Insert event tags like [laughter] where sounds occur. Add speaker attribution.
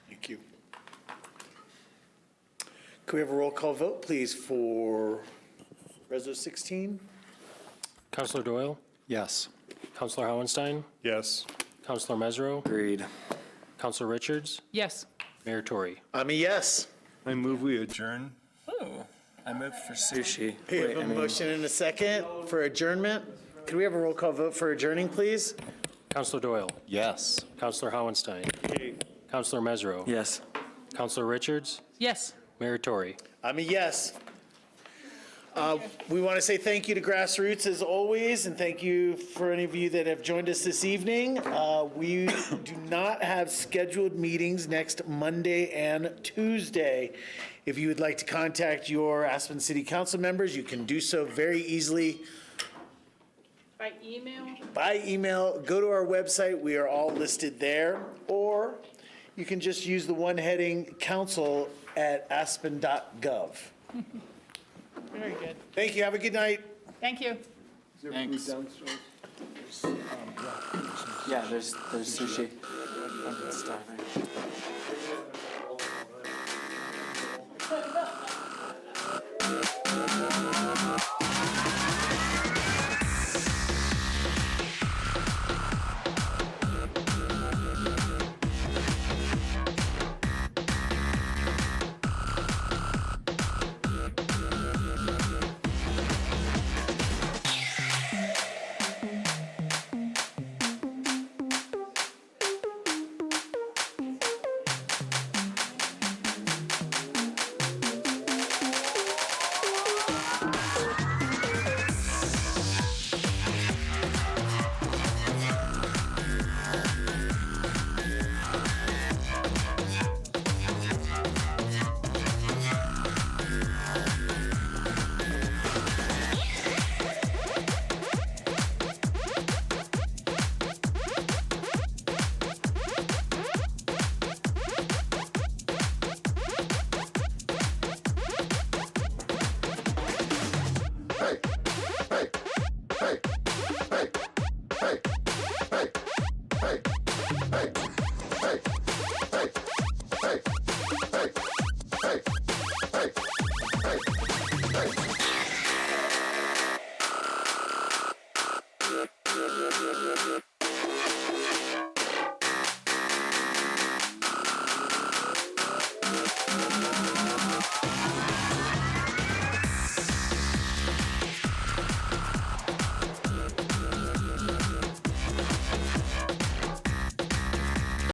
Speaker 1: Could we have a roll call vote, please, for Reso 16?
Speaker 2: Counselor Doyle,
Speaker 3: Yes.
Speaker 2: Counselor Howenstein,
Speaker 4: Yes.
Speaker 2: Counselor Mesro,
Speaker 3: Agreed.
Speaker 2: Counselor Richards,
Speaker 5: Yes.
Speaker 2: Mayor Tory.
Speaker 1: I'm a yes.
Speaker 4: I move we adjourn.
Speaker 3: I moved for sushi.
Speaker 1: We have a motion and a second for adjournment. Could we have a roll call vote for adjourning, please?
Speaker 2: Counselor Doyle,
Speaker 3: Yes.
Speaker 2: Counselor Howenstein, Counselor Mesro,
Speaker 3: Yes.
Speaker 2: Counselor Richards,
Speaker 5: Yes.
Speaker 2: Mayor Tory.
Speaker 1: I'm a yes. Uh, We want to say thank you to Grassroots as always, and thank you for any of you that have joined us this evening. Uh, We do not have scheduled meetings next Monday and Tuesday. If you would like to contact your Aspen City Council members, you can do so very easily
Speaker 6: By email?
Speaker 1: by email. Go to our website, we are all listed there. Or you can just use the one heading council@aspen.gov.
Speaker 5: [laughs] Very good.
Speaker 1: Thank you, have a good night.
Speaker 5: Thank you.
Speaker 3: Thanks. Yeah, there's, there's sushi. I'm starving.